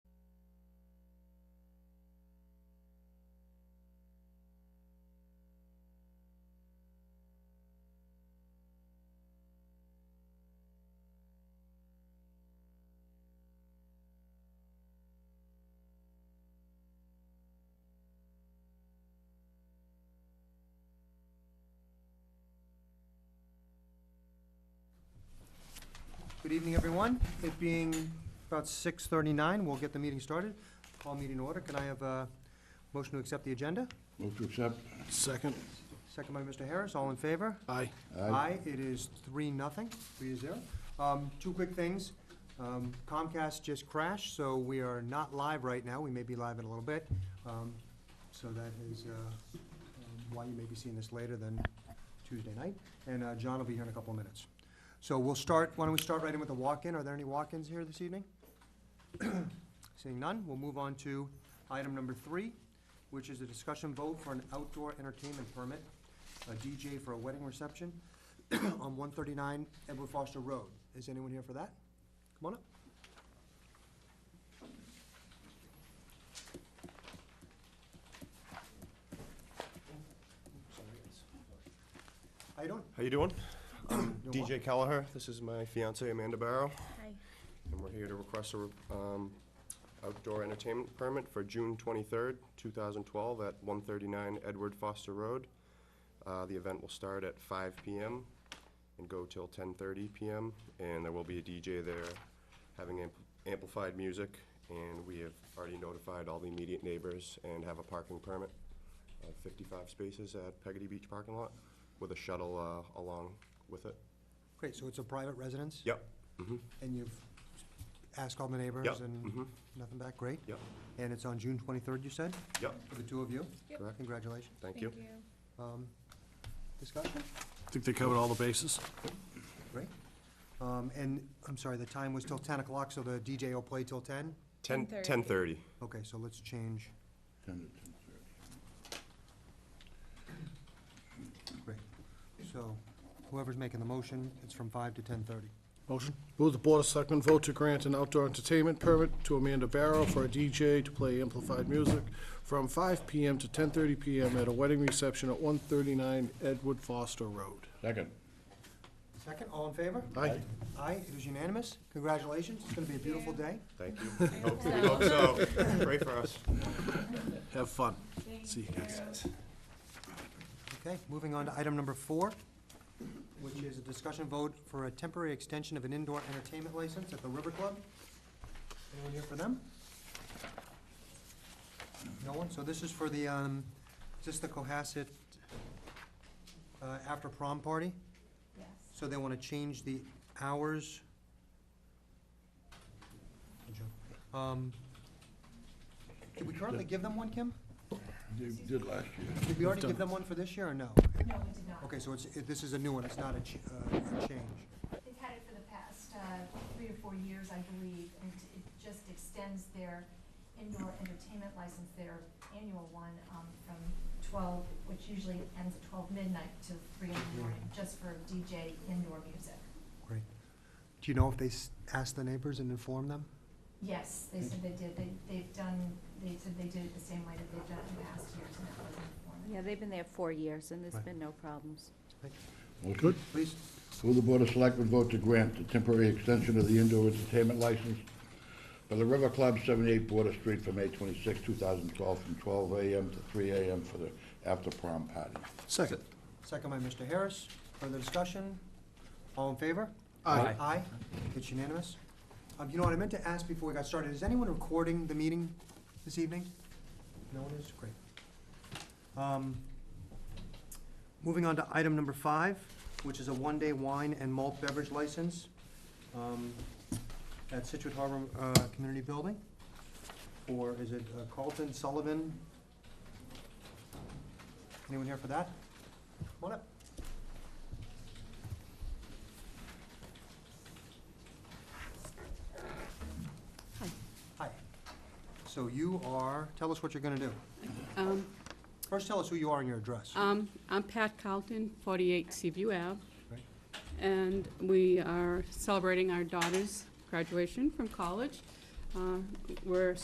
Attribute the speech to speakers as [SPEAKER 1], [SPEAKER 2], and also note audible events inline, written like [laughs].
[SPEAKER 1] Good evening, everyone. It being about 6:39, we'll get the meeting started. Call meeting to order. Can I have a motion to accept the agenda?
[SPEAKER 2] Move to accept.
[SPEAKER 3] Second.
[SPEAKER 1] Second by Mr. Harris, all in favor?
[SPEAKER 3] Aye.
[SPEAKER 1] Aye, it is three, nothing, three to zero. Um, two quick things. Um, Comcast just crashed, so we are not live right now. We may be live in a little bit. Um, so that is, uh, um, why you may be seeing this later than Tuesday night. And, uh, John will be here in a couple of minutes. So we'll start, why don't we start right in with the walk-in? Are there any walk-ins here this evening? [clears throat] Seeing none, we'll move on to item number three, which is a discussion vote for an outdoor entertainment permit, a DJ for a wedding reception on one thirty-nine Edward Foster Road. Is anyone here for that? Come on up. How you doing?
[SPEAKER 4] How you doing?
[SPEAKER 1] Doing well?
[SPEAKER 4] DJ Kelleher, this is my fiancee Amanda Barrow,
[SPEAKER 5] Hi.
[SPEAKER 4] and we're here to request a um, outdoor entertainment permit for June 23rd, 2012, at 139 Edward Foster Road. Uh, The event will start at 5 PM and go till 10:30 PM, and there will be a DJ there having amp- amplified music, and we have already notified all the immediate neighbors and have a parking permit of 55 spaces at Peggy Beach parking lot with a shuttle uh, along with it.
[SPEAKER 1] Great, so it's a private residence?
[SPEAKER 4] Yep. Mm-hmm.
[SPEAKER 1] And you've asked all the
[SPEAKER 4] Yep.
[SPEAKER 1] neighbors and
[SPEAKER 4] mhm,
[SPEAKER 1] nothing back, great?
[SPEAKER 4] Yep.
[SPEAKER 1] And it's on June twenty-third, you said,
[SPEAKER 4] Yep.
[SPEAKER 1] for the two of you?
[SPEAKER 5] Yep.
[SPEAKER 4] Correct.
[SPEAKER 1] Congratulations.
[SPEAKER 4] Thank you.
[SPEAKER 1] Um, Discussion?
[SPEAKER 3] Think they covered all the bases?
[SPEAKER 1] Great. Um, And, I'm sorry, the time was till 10 o'clock, so the DJ will play till 10?
[SPEAKER 4] Ten,
[SPEAKER 5] 10:30.
[SPEAKER 4] ten thirty.
[SPEAKER 1] Okay, so let's change,
[SPEAKER 2] Ten to ten thirty.
[SPEAKER 1] great. So whoever's making the motion, it's from 5 to 10:30.
[SPEAKER 3] Motion. Move the Board of Selectmen vote to grant an outdoor entertainment permit to Amanda Barrow for a DJ to play amplified music from 5 PM to 10:30 PM at a wedding reception at 139 Edward Foster Road.
[SPEAKER 2] Second.
[SPEAKER 1] Second, all in favor?
[SPEAKER 3] Aye.
[SPEAKER 1] Aye, it is unanimous. Congratulations, it's gonna be a beautiful day.
[SPEAKER 4] Thank you. [laughs] Hope- We hope so. Pray for us.
[SPEAKER 3] Have fun. See you guys.
[SPEAKER 1] Okay, moving on to item number four, which is a discussion vote for a temporary extension of an indoor entertainment license at the River Club. Anyone here for them? No one? So this is for the, um, is this the Cohasset, uh, after prom party?
[SPEAKER 5] Yes.
[SPEAKER 1] So they wanna change the hours. Good job. Um, Did we currently give them one, Kim?
[SPEAKER 2] They did last year.
[SPEAKER 1] Did we already give
[SPEAKER 3] done-
[SPEAKER 1] them one for this year or no?
[SPEAKER 6] No, we did not.
[SPEAKER 1] Okay, so it's, it- this is a new one, it's not a ch- uh, a change.
[SPEAKER 6] They've had it for the past uh, three or four years, I believe, and it just extends their indoor entertainment license, their annual one, um, from twelve, which usually ends at twelve midnight to three in the morning, just for DJ indoor music.
[SPEAKER 1] Great. Do you know if they s- asked the neighbors and informed them?
[SPEAKER 6] Yes, they said they did, they, they've done, they said they did it the same way that they've done it in the past years, and that was informative.
[SPEAKER 5] Yeah, they've been there four years, and there's
[SPEAKER 1] Right.
[SPEAKER 5] been no problems.
[SPEAKER 2] Good.
[SPEAKER 1] Please,
[SPEAKER 2] Will the Board of Selectmen vote to grant the temporary extension of the indoor entertainment license for the River Club, 78 Border Street, from May 26, 2012, from 12 a.m. to 3 a.m. for the after-prom party?
[SPEAKER 3] Second.
[SPEAKER 1] second by Mr. Harris, further discussion? All in favor?
[SPEAKER 3] Aye.
[SPEAKER 1] Aye, it's unanimous. Um, you know what, I meant to ask before we got started, is anyone recording the meeting this evening? No one is, great. Um, Moving on to item number five, which is a one-day wine and malt beverage license, um, at Situate Harbor, uh, Community Building. Or is it uh, Carlton Sullivan? Anyone here for that? Come on up. Hi. So you are, tell us what you're gonna do.
[SPEAKER 7] Um,
[SPEAKER 1] First, tell us who you are and your address.
[SPEAKER 7] um, I'm Pat Carlton, 48 Seaview Ave,
[SPEAKER 1] Right.
[SPEAKER 7] and we are celebrating our daughter's graduation from college. Uh, We're